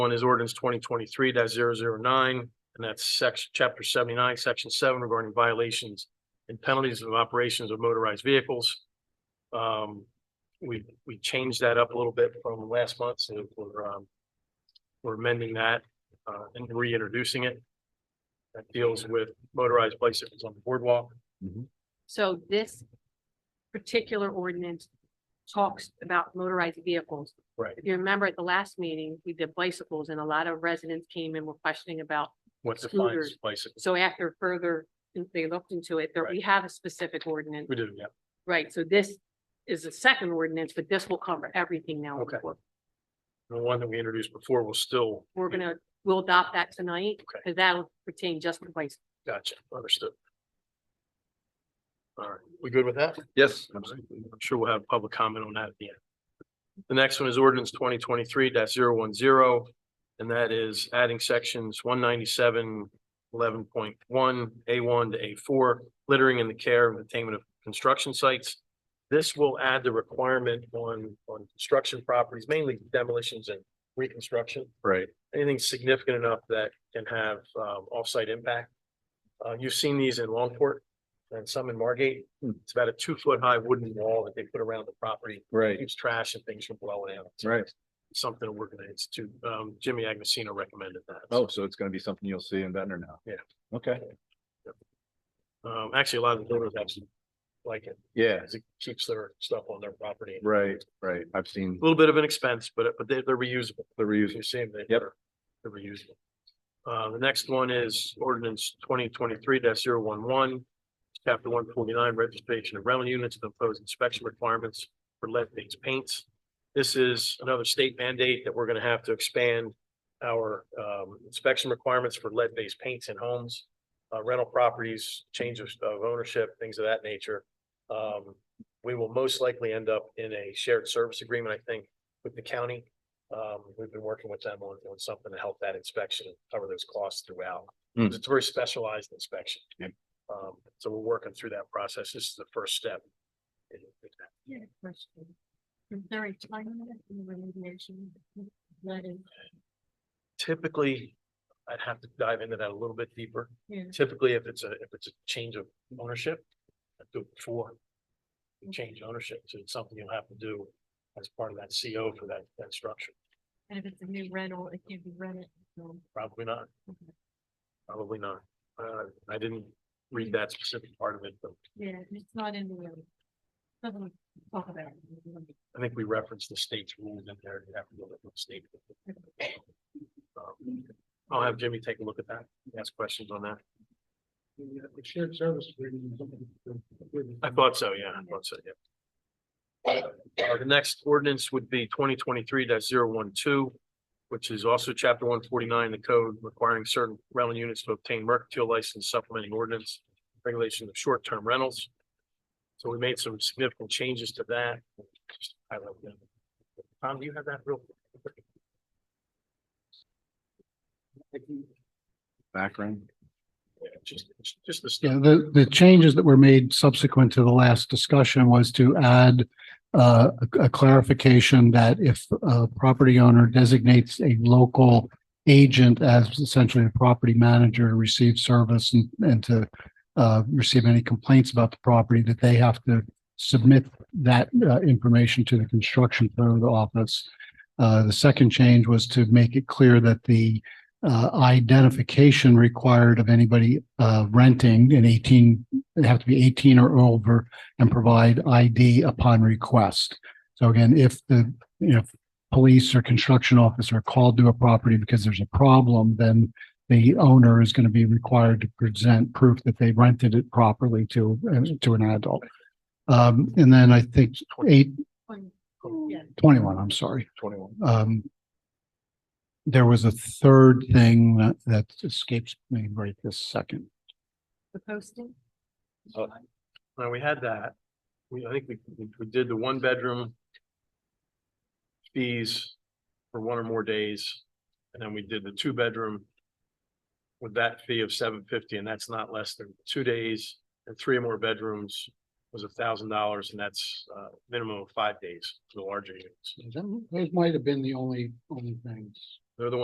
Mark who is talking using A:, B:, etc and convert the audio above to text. A: One is ordinance twenty twenty-three 9 and that's section, chapter seventy-nine, section seven regarding violations and penalties of operations of motorized vehicles. Um, we, we changed that up a little bit from last month, so we're, um, we're amending that, uh, and reintroducing it. That deals with motorized bicycles on the boardwalk.
B: So this particular ordinance talks about motorized vehicles.
A: Right.
B: If you remember at the last meeting, we did bicycles and a lot of residents came and were questioning about,
A: What defines
B: Scooters.
A: bicycle?
B: so after further, they looked into it, there, we have a specific ordinance.
A: We do, yeah.
B: Right, so this is the second ordinance, but this will cover everything now.
A: Okay. The one that we introduced before will still.
B: We're gonna, we'll adopt that tonight,
A: Okay.
B: because that'll pertain just to bicycles.
A: Gotcha, understood. All right, we good with that?
C: Yes.
A: I'm sure we'll have public comment on that at the end. The next one is ordinance twenty twenty-three 10 and that is adding sections one ninety-seven eleven point one, A one to A four, littering in the care and attainment of construction sites. This will add the requirement on, on construction properties, mainly demolitions and reconstruction
C: Right.
A: anything significant enough that can have um offsite impact. Uh, you've seen these in Longport and some in Margate.
C: Hmm.
A: It's about a two foot high wooden wall that they put around the property. It
C: Right.
A: Keeps trash and things from blowing out.
C: Right.
A: Something we're gonna institute. Um, Jimmy Agnesino recommended that.
C: Oh, so it's gonna be something you'll see in Ventnor now.
A: Yeah.
C: Okay,
A: Um, actually, a lot of the builders actually like it.
C: yeah,
A: because It keeps their stuff on their property. A
C: right, right. I've seen
A: little bit of an expense, but but they- they're reusable.
C: the
A: If
C: reuse.
A: you're seeing that.
C: Yep.
A: they're- They're reusable. Uh, the next one is ordinance twenty twenty-three 11 Chapter one forty-nine, registration of rental units to impose inspection requirements for lead-based paints. This is another state mandate that we're gonna have to expand our um inspection requirements for lead-based paints in homes. Uh, rental properties, change of of ownership, things of that nature. Um, we will most likely end up in a shared service agreement, I think, with the county. Um, we've been working with them on, on something to help that inspection and cover those costs throughout.
C: Hmm.
A: It's a very specialized inspection.
C: Yep.
A: Um, so we're working through that process. This is the first step. in- in that.
D: Yeah, question. Is there a time limit in the remediation? Letting,
A: Typically, I'd have to dive into that a little bit deeper.
D: yeah,
A: Typically, if it's a, if it's a change of ownership, I do it before. the Change of ownership, so it's something you'll have to do as part of that CO for that, that structure.
D: and if it's a new rental, it can be rented. until-
A: Probably not.
D: Okay.
A: Probably not. Uh, I didn't read that specific part of it, but
D: Yeah, it's not in the. um, Doesn't talk about. it.
A: I think we referenced the state's rules in there, you have to go to the state. Um, I'll have Jimmy take a look at that, ask questions on that.
E: The shared service agreement. is something
A: I
E: that-
A: thought so, yeah, I thought so, yeah. Uh, The next ordinance would be twenty twenty-three 12 which is also chapter one forty-nine, the code requiring certain rental units to obtain mercantile license supplementing ordinance regulation of short-term rentals. So we made some significant changes to that. Just highlight them. Tom, do you have that real?
C: Background.
A: Yeah, Just, just the stuff.
E: Yeah, the, the changes that were made subsequent to the last discussion was to add uh, a a clarification that if a property owner designates a local agent as essentially a property manager to receive service and, and to uh, receive any complaints about the property, that they have to submit that uh, information to the construction code office. Uh, the second change was to make it clear that the uh, identification required of anybody, uh, renting an eighteen, they have to be eighteen or over and provide ID upon request. So again, if the, you know, police or construction officer are called to a property because there's a problem, then the owner is going to be required to present proof that they rented it properly to, uh, to an adult. Um, and then I think eight,
D: When- yeah.
E: 21, I'm sorry
C: Twenty-one.
E: um, there was a third thing that, that escapes me right this second.
D: The posting?
C: Oh.
A: Now, we had that. We, I think we, we- we did the one bedroom. Fees for one or more days, and then we did the two bedroom. With that fee of seven fifty, and that's not less than two days, and three or more bedrooms was a thousand dollars, and that's uh minimum of five days for the larger units.
E: Those might have been the only, only things.
A: They're the ones